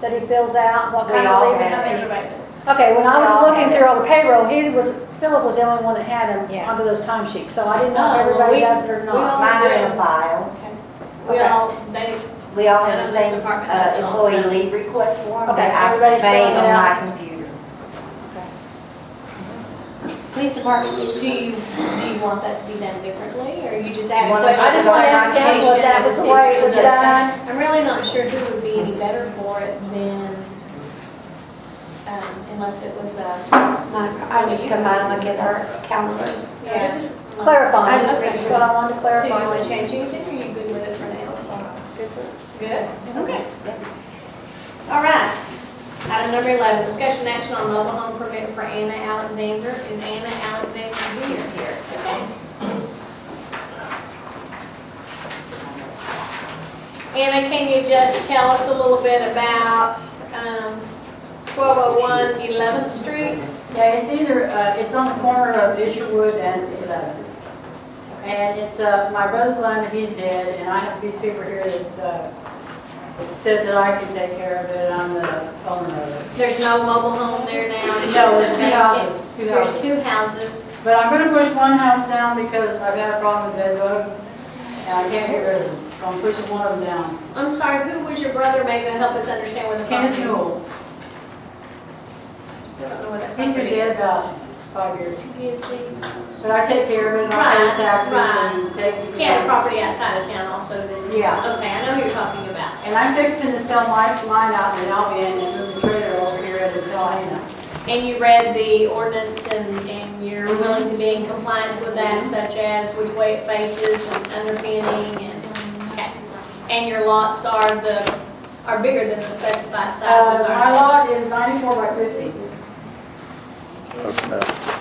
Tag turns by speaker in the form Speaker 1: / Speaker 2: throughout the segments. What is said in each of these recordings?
Speaker 1: that he fills out, what
Speaker 2: We
Speaker 1: kind of
Speaker 2: all
Speaker 1: leave, and how
Speaker 2: have
Speaker 1: many.
Speaker 2: it.
Speaker 1: Okay, when I
Speaker 2: We all
Speaker 1: was looking
Speaker 2: have
Speaker 1: through all the payroll, he was, Philip was the only one that had them
Speaker 2: Yeah.
Speaker 1: onto those time sheets, so I didn't
Speaker 3: Oh,
Speaker 1: know if
Speaker 3: well,
Speaker 1: everybody
Speaker 3: we-
Speaker 1: does it or
Speaker 3: we
Speaker 1: not.
Speaker 3: all-
Speaker 2: Mine are in the file.
Speaker 3: We
Speaker 1: Okay.
Speaker 3: all, they,
Speaker 2: We all have
Speaker 3: None
Speaker 2: the
Speaker 3: of this
Speaker 2: same
Speaker 3: department has
Speaker 2: uh,
Speaker 3: it on
Speaker 2: employee
Speaker 3: time.
Speaker 2: leave request form
Speaker 1: Okay,
Speaker 2: that I
Speaker 1: everybody's filling
Speaker 2: made
Speaker 1: it
Speaker 2: on
Speaker 1: out?
Speaker 2: my computer.
Speaker 3: police department, do you, do you want that to be done differently, or you just add a
Speaker 2: One of
Speaker 3: question?
Speaker 2: I just wanna
Speaker 1: ask Council if that was the way it was done.
Speaker 3: I'm really not sure who would be any better for it than, um, unless it was uh, a,
Speaker 4: I just combine them, I get her calendar.
Speaker 3: yeah.
Speaker 1: Clarifying,
Speaker 3: I just-
Speaker 1: that's what I wanted to
Speaker 3: So you
Speaker 1: clarify.
Speaker 3: want to change anything, or you good with it for now? Good, okay. All right. Item number 11, discussion action on mobile home permit for Anna Alexander. Is Anna Alexander here? Here. Okay. Anna, can you just tell us a little bit about um, 1201 11th Street?
Speaker 5: Yeah, it's either, uh, it's on the corner of Isherwood and 11th. And it's, uh, my brother's land, he's dead, and I have a piece of paper here that's, uh, it says that I can take care of it on the owner of it.
Speaker 3: There's no mobile home there now. it's
Speaker 5: No,
Speaker 3: just
Speaker 5: it's
Speaker 3: a
Speaker 5: two
Speaker 3: vacant-
Speaker 5: houses, two
Speaker 3: There's
Speaker 5: houses.
Speaker 3: two houses.
Speaker 5: But I'm gonna push one house down because I've had a problem with bed bugs, and I can't get rid of them, so I'm pushing one of them down.
Speaker 3: I'm sorry, who was your brother? Maybe it'll help us understand where the
Speaker 5: Kenneth
Speaker 3: property is.
Speaker 5: Newell,
Speaker 3: Still don't know where that
Speaker 5: he's been
Speaker 3: property
Speaker 5: dead
Speaker 3: is.
Speaker 5: about five years,
Speaker 3: He
Speaker 5: but I take care of it, I pay
Speaker 3: Right,
Speaker 5: taxes
Speaker 3: right.
Speaker 5: and take.
Speaker 3: had a property outside of town also then.
Speaker 5: Yeah.
Speaker 3: Okay, I know who you're talking about.
Speaker 5: And I'm fixing to sell my, mine out in Albion and move the trailer over here at Delhana.
Speaker 3: And you read the ordinance and, and you're
Speaker 5: Mm-hmm.
Speaker 3: willing to be in compliance with that, such as which way it faces and underpinning and, okay. And your lots are the, are bigger than the specified sizes
Speaker 5: Uh, my
Speaker 3: are.
Speaker 5: lot is ninety-four by fifty.
Speaker 6: Close enough.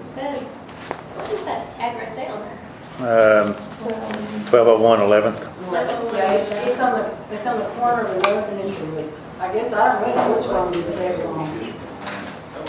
Speaker 3: It says, what is that address say on there?
Speaker 6: Um, 1201 11th.
Speaker 5: Yeah, it- it's on the, it's on the corner of eleventh and Isherwood. I guess I don't really know which one would say it wrong.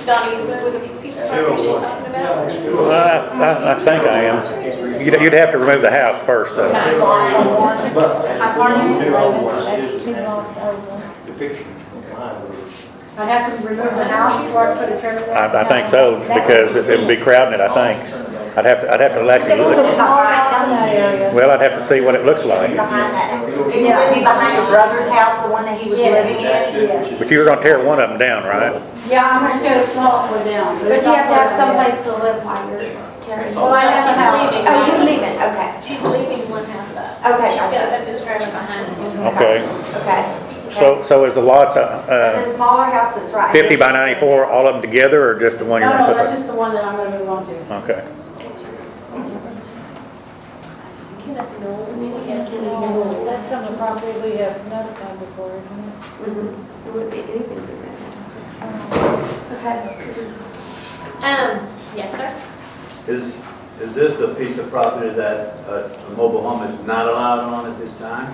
Speaker 3: Donnie, you with a piece of paper she's talking about?
Speaker 6: Well, I I- I think I am. You'd you'd have to remove the house first, though.
Speaker 5: I pardon you?
Speaker 4: That's two blocks over.
Speaker 7: The picture. mine was-
Speaker 5: I'd have to remove the house before I put a trailer there.
Speaker 6: I I think so, because it it would be crowding it, I think. I'd have to, I'd have to actually look.
Speaker 1: It's small lots in that area.
Speaker 6: Well, I'd have to see what it looks like.
Speaker 2: Behind that, it would be behind your brother's house, the one that he was
Speaker 5: Yes.
Speaker 2: living in.
Speaker 5: Yes.
Speaker 6: But you were gonna tear one of them down, right?
Speaker 5: Yeah, I'm gonna tear the smallest one down.
Speaker 4: But
Speaker 5: it's
Speaker 4: you have to
Speaker 5: not far
Speaker 4: have
Speaker 5: from there.
Speaker 4: someplace to live while you're tearing.
Speaker 5: Well, I have a house.
Speaker 4: Oh, you're leaving, okay,
Speaker 3: She's leaving one house up.
Speaker 4: Okay,
Speaker 3: She's got
Speaker 4: gotcha.
Speaker 3: to put this trailer behind her.
Speaker 6: Okay.
Speaker 4: okay.
Speaker 6: So, so is the lots
Speaker 2: But the
Speaker 6: uh,
Speaker 2: smaller house that's right.
Speaker 6: 50 by 94, all of them together, or just the one you're
Speaker 5: No, no,
Speaker 6: gonna put?
Speaker 5: that's just the one that I'm gonna move on to.
Speaker 6: the- Okay.
Speaker 1: That's some of the property we have notified before, isn't it?
Speaker 4: Mhm. It would be anything to do that. Okay.
Speaker 3: Um, yes, sir.
Speaker 8: Is, is this a piece of property that uh, a mobile home is not allowed on at this time?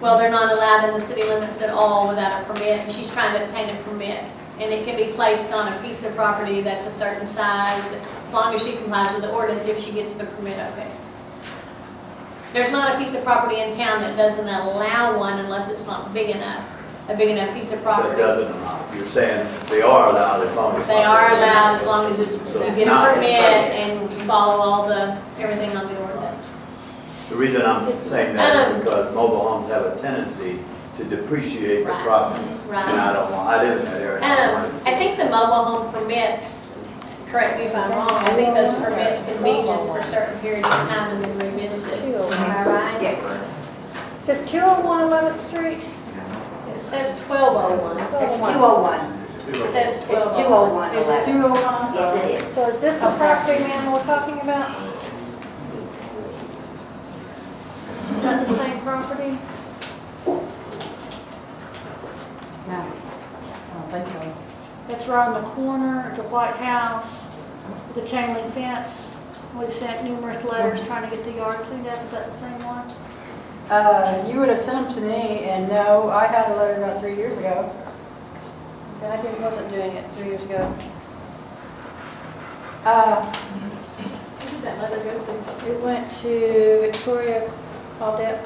Speaker 3: Well, they're not allowed in the city limits at all without a permit, and she's trying to obtain a permit. And it can be placed on a piece of property that's a certain size, as long as she complies with the ordinance, if she gets the permit, okay. There's not a piece of property in town that doesn't allow one unless it's not big enough, a big enough piece of
Speaker 8: That
Speaker 3: property.
Speaker 8: doesn't allow, you're saying they are allowed as long as.
Speaker 3: They are allowed as long as it's, you
Speaker 8: So it's
Speaker 3: get
Speaker 8: not
Speaker 3: a
Speaker 8: a
Speaker 3: permit
Speaker 8: permit.
Speaker 3: and follow all the, everything on the ordinance.
Speaker 8: The reason I'm saying that
Speaker 3: Um.
Speaker 8: is because mobile homes have a tendency to depreciate the
Speaker 3: Right.
Speaker 8: property.
Speaker 3: Right.
Speaker 8: And I don't want, I live in that area. and I
Speaker 3: Um,
Speaker 8: don't want
Speaker 3: I
Speaker 8: it to-
Speaker 3: think the mobile home permits, correct me if I'm wrong, I think those permits can be just for a certain period of time and then revisited. Am I right?
Speaker 2: Yes,
Speaker 1: Says 201 11th oh Street?
Speaker 3: It says twelve oh one.
Speaker 2: it's 201.
Speaker 3: It says
Speaker 2: It's
Speaker 3: twelve oh one.
Speaker 5: Is
Speaker 2: 201,
Speaker 5: it
Speaker 2: 11.
Speaker 5: two oh one?
Speaker 2: Yes, it is.
Speaker 1: So is this the property, man, we're talking about? Is that the same property?
Speaker 5: I don't think so.
Speaker 1: That's right on the corner of the White House, the chain link fence. We've sent numerous letters trying to get the yard cleaned up. Is that the same one?
Speaker 5: Uh, you would have sent them to me, and no, I had a letter about three years ago. And I didn't, wasn't doing it three years ago. Uh,
Speaker 3: Who did that letter go to?
Speaker 1: It went to Victoria Claudette